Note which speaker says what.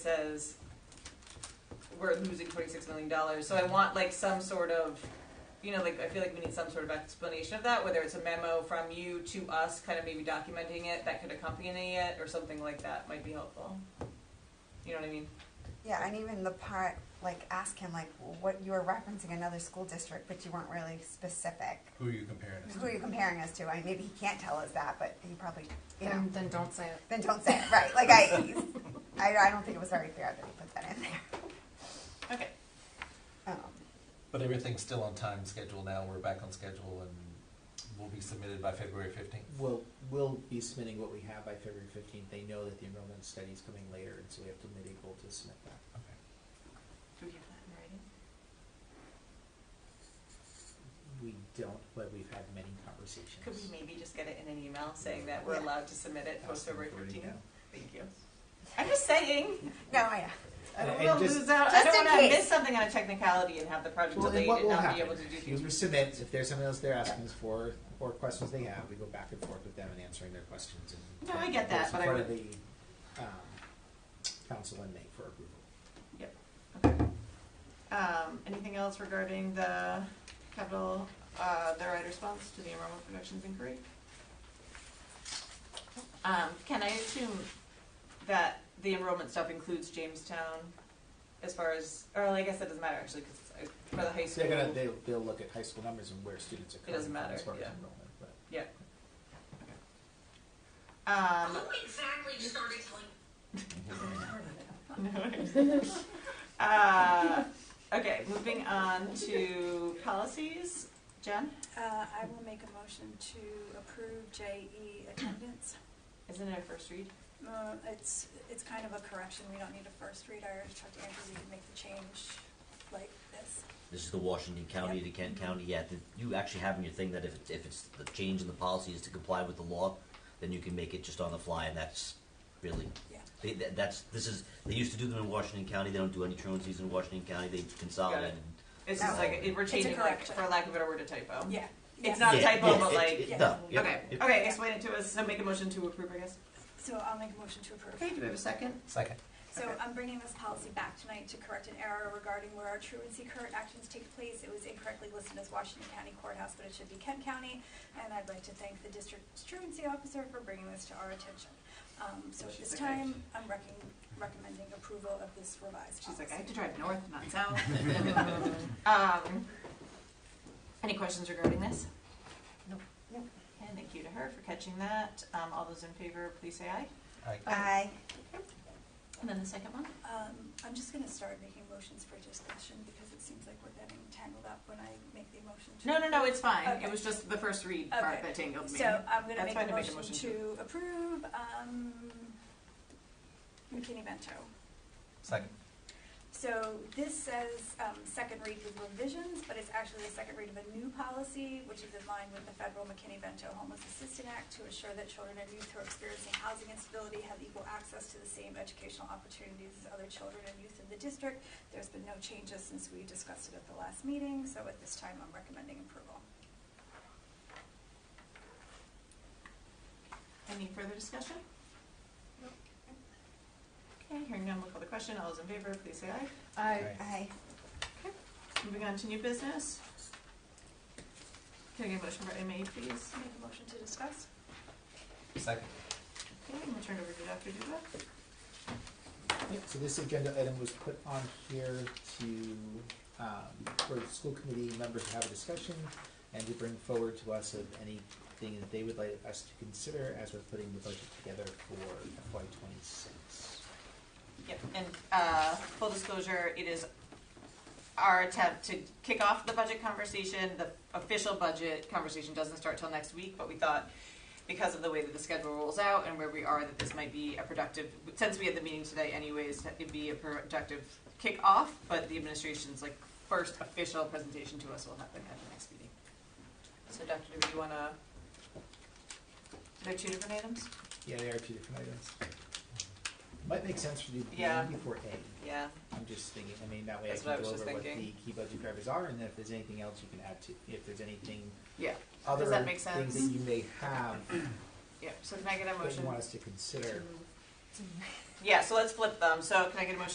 Speaker 1: says we're losing twenty-six million dollars, so I want like some sort of, you know, like, I feel like we need some sort of explanation of that, whether it's a memo from you to us, kind of maybe documenting it, that could accompany it, or something like that might be helpful. You know what I mean?
Speaker 2: Yeah, and even the part, like, ask him, like, what, you were referencing another school district, but you weren't really specific.
Speaker 3: Who are you comparing us
Speaker 2: Who are you comparing us to? I mean, maybe he can't tell us that, but he probably, you know,
Speaker 4: Then, then don't say it.
Speaker 2: then don't say it, right? Like, I, I, I don't think it was very fair that he put that in there.
Speaker 1: Okay.
Speaker 2: Um,
Speaker 3: But everything's still on time schedule now, we're back on schedule and will be submitted by February fifteenth.
Speaker 5: Well, we'll be submitting what we have by February fifteenth. They know that the enrollment study is coming later, and so we have to mid-April to submit that.
Speaker 1: Do we have that in writing?
Speaker 5: We don't, but we've had many conversations.
Speaker 1: Could we maybe just get it in an email saying that we're
Speaker 2: Yeah.
Speaker 1: allowed to submit it post
Speaker 5: Ask them
Speaker 1: February
Speaker 5: for it
Speaker 1: fifteenth?
Speaker 5: now.
Speaker 1: Thank you. I'm just saying,
Speaker 2: No, I,
Speaker 1: I don't
Speaker 5: And
Speaker 1: wanna
Speaker 5: just-
Speaker 1: lose out, I
Speaker 2: just
Speaker 1: don't
Speaker 2: in
Speaker 1: wanna
Speaker 2: case.
Speaker 1: miss something on a technicality and have the project
Speaker 5: Well, and
Speaker 1: delayed
Speaker 5: what
Speaker 1: and
Speaker 5: will
Speaker 1: not be able
Speaker 5: happen,
Speaker 1: to do
Speaker 5: if
Speaker 1: things.
Speaker 5: you submit, if there's something else they're asking us for, or questions they have, we go back and forth with them and answering their questions and.
Speaker 1: No, I get that,
Speaker 5: It's in
Speaker 1: but I
Speaker 5: front of the, um, council and May for approval.
Speaker 1: Okay. Um, anything else regarding the capital, uh, the right response to the enrollment projections inquiry? Um, can I assume that the enrollment stuff includes Jamestown as far as, or like I guess that doesn't matter actually, cause I- for the high
Speaker 5: They're
Speaker 1: school.
Speaker 5: gonna, they'll, they'll look at high school numbers and where students are coming
Speaker 1: doesn't
Speaker 5: from
Speaker 1: matter,
Speaker 5: as far as
Speaker 1: yeah.
Speaker 5: enrollment, but.
Speaker 1: Um,
Speaker 6: Who exactly started telling
Speaker 1: Um, uh, okay, moving on to policies, Jen,
Speaker 7: Uh, I will make a motion to approve JE attendance.
Speaker 1: isn't it a first read?
Speaker 7: Uh, It's, it's kind of a correction, we don't need a first read, I already talked to Andrew, we can make the change like this.
Speaker 8: This is the Washington County to Kent County. Yeah, th- you actually have in your thing that if it's, if it's the change in the policy is to comply with the law, then you can make it just on the fly, and that's really
Speaker 7: Yeah.
Speaker 8: they, that, that's this is they used to do them in Washington County. They don't do any truancies in Washington County. They consolidate.
Speaker 1: It's just
Speaker 2: No.
Speaker 1: like, it- we're
Speaker 7: It's a
Speaker 1: changing like,
Speaker 7: correction.
Speaker 1: for lack of a better word, a typo.
Speaker 7: Yeah.
Speaker 1: Mm-hmm. It's
Speaker 7: yeah.
Speaker 1: not a
Speaker 8: yeah,
Speaker 1: typo,
Speaker 8: yeah,
Speaker 1: but
Speaker 8: it-
Speaker 1: like-
Speaker 8: it- no, yeah,
Speaker 1: Okay,
Speaker 8: yeah.
Speaker 1: okay, explain it to us, so make a motion to approve, I guess.
Speaker 7: So I'll make a motion to approve.
Speaker 1: Okay, do we have a second?
Speaker 3: Second.
Speaker 7: So
Speaker 1: Okay.
Speaker 7: I'm bringing this policy back tonight to correct an error regarding where our truancy current actions take place. It was incorrectly listed as Washington County Courthouse, but it should be Kent County. And I'd like to thank the district's truancy officer for bringing this to our attention. Um, so at
Speaker 1: She's
Speaker 7: this
Speaker 1: like, I-
Speaker 7: time, I'm recom- recommending approval of this revised
Speaker 1: She's
Speaker 7: policy.
Speaker 1: like, I have to drive north, not south. Um, Any questions regarding this?
Speaker 2: Nope. Nope.
Speaker 1: And thank you to her for catching that. Um, all those in favor, please say aye.
Speaker 3: Aye.
Speaker 2: I,
Speaker 1: And then the second one?
Speaker 7: Um, I'm just gonna start making motions for discussion because it seems like we're getting tangled up when I make the motion to.
Speaker 1: No, no, no, it's fine.
Speaker 7: Okay.
Speaker 1: It was just the first read part
Speaker 7: Okay.
Speaker 1: that tangled me.
Speaker 7: So I'm gonna
Speaker 1: That's
Speaker 7: make
Speaker 1: fine
Speaker 7: a motion to approve, um, McKinney Bento.
Speaker 3: Second.
Speaker 7: So this says, um, second read with revisions, but it's actually the second read of a new policy, which is in line with the federal McKinney-Vento Homeless Assistant Act to ensure that children and youth who are experiencing housing instability have equal access to the same educational opportunities as other children and youth in the district. There's been no changes since we discussed it at the last meeting, so at this time, I'm recommending approval.
Speaker 1: Any further discussion? Okay, hearing none, we'll call the question. All those in favor, please say aye.
Speaker 4: I,
Speaker 2: I,
Speaker 1: Moving on to new business. Can I get a motion for MA, please?
Speaker 7: Make a motion to discuss?
Speaker 3: Second.
Speaker 1: Okay, I'm gonna turn it over to Dr. Duba.
Speaker 5: Yep, so this agenda item was put on here to, um, for the school committee members to have a discussion and to bring forward to us of anything that they would like us to consider as we're putting the budget together for FY twenty-six.
Speaker 1: Yep, and uh, full disclosure, it is our attempt to kick off the budget conversation. The official budget conversation doesn't start till next week, but we thought because of the way that the schedule rolls out and where we are, that this might be a productive, since we had the meeting today anyways, that it'd be a productive kickoff, but the administration's like first official presentation to us will happen at the next meeting. So Dr. Do you wanna, there are two different items?
Speaker 5: Yeah, there are two different items. Might make sense to do B
Speaker 1: Yeah.
Speaker 5: before A.
Speaker 1: Yeah,
Speaker 5: I'm just thinking, I mean, that way I
Speaker 1: That's what I
Speaker 5: can go
Speaker 1: was just
Speaker 5: over what the
Speaker 1: thinking.
Speaker 5: key budget drivers are and then if there's anything else you can add to, if there's anything,
Speaker 1: yeah,
Speaker 5: other
Speaker 1: that make
Speaker 5: things
Speaker 1: sense?
Speaker 5: that you may have
Speaker 1: yeah, so can I get a
Speaker 5: that you
Speaker 1: motion
Speaker 5: want us to consider.
Speaker 1: to Yeah, so let's flip them. So can I get a motion